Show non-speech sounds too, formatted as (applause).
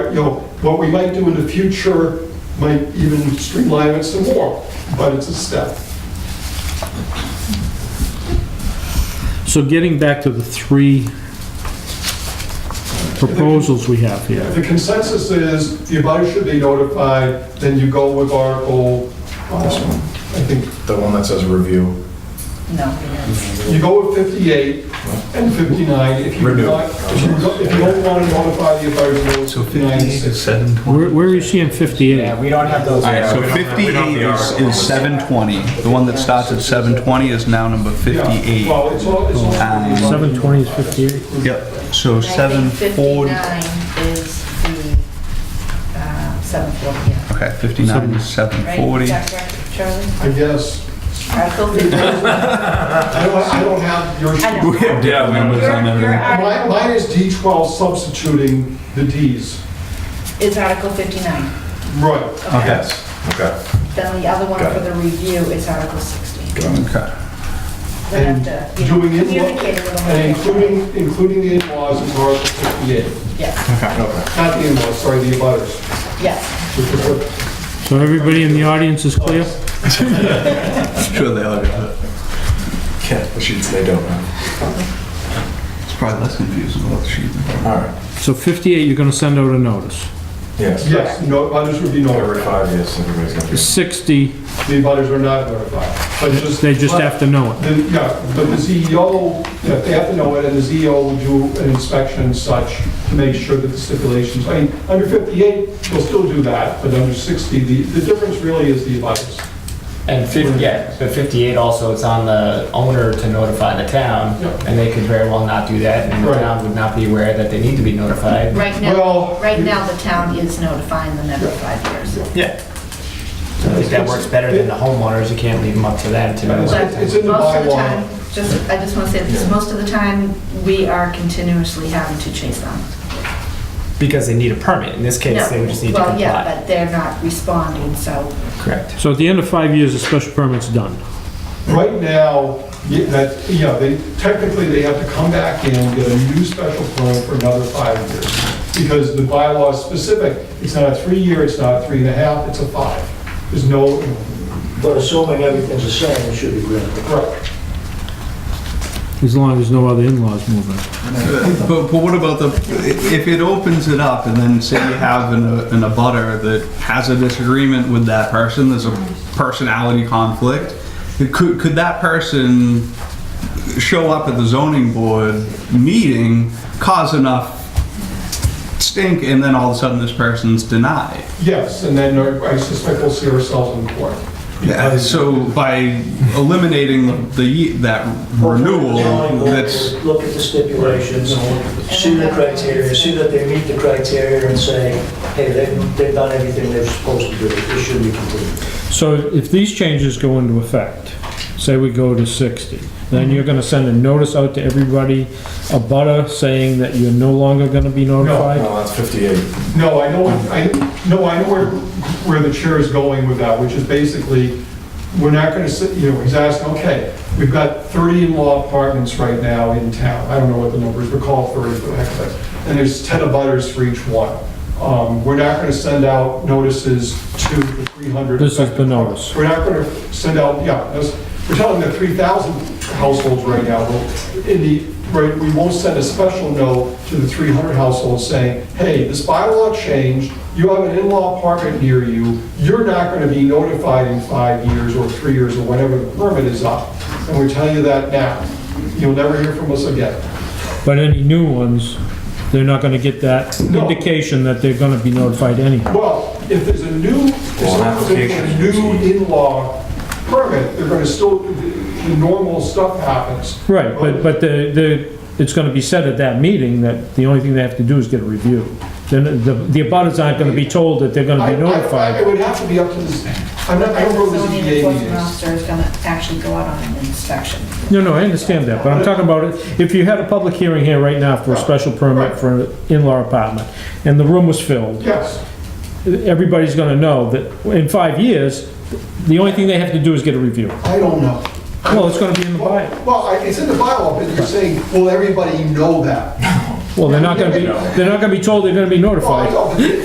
you know, what we might do in the future might even streamline it some more, but it's a step. So getting back to the three proposals we have If here. the consensus is the abutters should be notified, then you go with Article, um, I think, The one that says review. No. you go with 58 and 59. If you Renew. not- If you don't- if you don't want to notify the abutters, So go 59 58 and is 60. 720. Where, where are you seeing 58? we don't have those. All right, so We don't have- we 58 don't have the is, article. is 720. The one that starts at 720 is now number Yeah. 58. Well, it's all, it's all. Um, 720 is 58? Yep, so I think 740. 59 is the, uh, 740, yeah. Okay, 59 is Right? 740. Is that correct, Charlie? I guess. Article 59. I don't, I don't have your I know. sheet. (laughs) Yeah, numbers on Your- your everything. Mine article mine is D12 substituting the Ds. Is Article 59. Right. Okay, Okay. Then the other one Got for the review is Article 60. okay. We have to, you know, Doing it- communicate it with them. And including, including the in-laws is Article 58. Yes, Not the in-laws, sorry, the abutters. yes. which is what- So everybody in the audience is clear? Sure they all got it. Yeah, the sheets they don't have. It's probably less confusing without the sheet. All right. So 58, you're gonna send out a notice. Yes. Yes, no, abutters would be notified. Every five years, everybody's gonna be. 60, The abutters are not notified. But just. they just have to know it. The- Yeah, but the CEO, yeah, they have to know it, and the CEO will do an inspection and such to make sure that the stipulations, I mean, under 58, they'll still do that, but under 60, the, the difference really is the abutters. And 50, yeah, but 58 also, it's on the owner to notify the town, Yeah. and they could very well not do that, and the Right. town would not be aware that they need to be notified. Right Well- now, right now, the town is notifying them every five years. Yeah. So I think that works better than the homeowners, you can't leave them up to them to know. It's- it's in the Most of the bylaw. time, just, I just want to say this, most of the time, we are continuously having to chase them. Because they need a permit, in this case, they would just need to Well, yeah, comply. but they're not responding, so Correct. So at the end of five years, the special permit's done. Right now, yeah, that, yeah, they, technically, they have to come back in, get a new special permit for another five years, because the bylaw is specific, it's not a three-year, it's not a three and a half, it's a five. There's no, But assuming everything's the same, it should be granted. right, As long as no other in-laws move in. But, but what about the, if it opens it up and then say you have an, an abutter that has a disagreement with that person, there's a personality conflict, could, could that person show up at the zoning board meeting, cause enough stink, and then all of a sudden this person's denied? yes, and then I suspect we'll see ourselves in court. Yeah, so by eliminating the, ye- that renewal, that's, Look at the stipulations, see the criteria, see that they meet the criteria and say, hey, they've, they've done everything they're supposed to do, it should be completed. So if these changes go into effect, say we go to 60, then you're gonna send a notice out to everybody, a butter saying that you're no longer gonna be notified? No, that's 58. No, I know, I, no, I know where, where the chair is going with that, which is basically, we're not gonna sit, you know, he's asking, okay, we've got 30 in-law apartments right now in town, I don't know what the numbers, but call 30 for the heck of it, and there's 10 abutters for each one. Um, we're not gonna send out notices to the 300. This is the affected notice. we're not gonna send out, yeah, this- we're telling the three thousand households right now, well, in the, right, we won't send a special note to the three hundred households saying, hey, this bylaw changed, you have an in-law apartment near you, you're not gonna be notified in five years or three years or whenever the permit is up. And we're telling you that now. You'll never hear from us again. But any new ones, they're not gonna get that No. indication that they're gonna be notified anyhow. Well, if there's a new, if Well, there's a application. new in-law permit, they're gonna still, the the normal stuff happens. Right, but, but the, the, it's gonna be said at that meeting that the only thing they have to do is get a review. Then the, the abutters aren't gonna be told that they're gonna I- be I- It notified. would have to be up to this, I'm not, I don't know the what the zoning ZBA enforcement meetings. officer is gonna actually go out on an inspection. No, no, I understand that, but I'm talking about it, if you had a public hearing here right now for a special permit for an in-law apartment, and the room was filled, Yes, everybody's gonna know that in five years, the only thing they have to do is get a review. I don't know. Well, it's gonna be in the bylaw. Well, well, I- it's in the bylaw, but you're saying, will everybody know that? Well, they're not gonna be, they're not gonna be told they're gonna be Well, I notified. know, but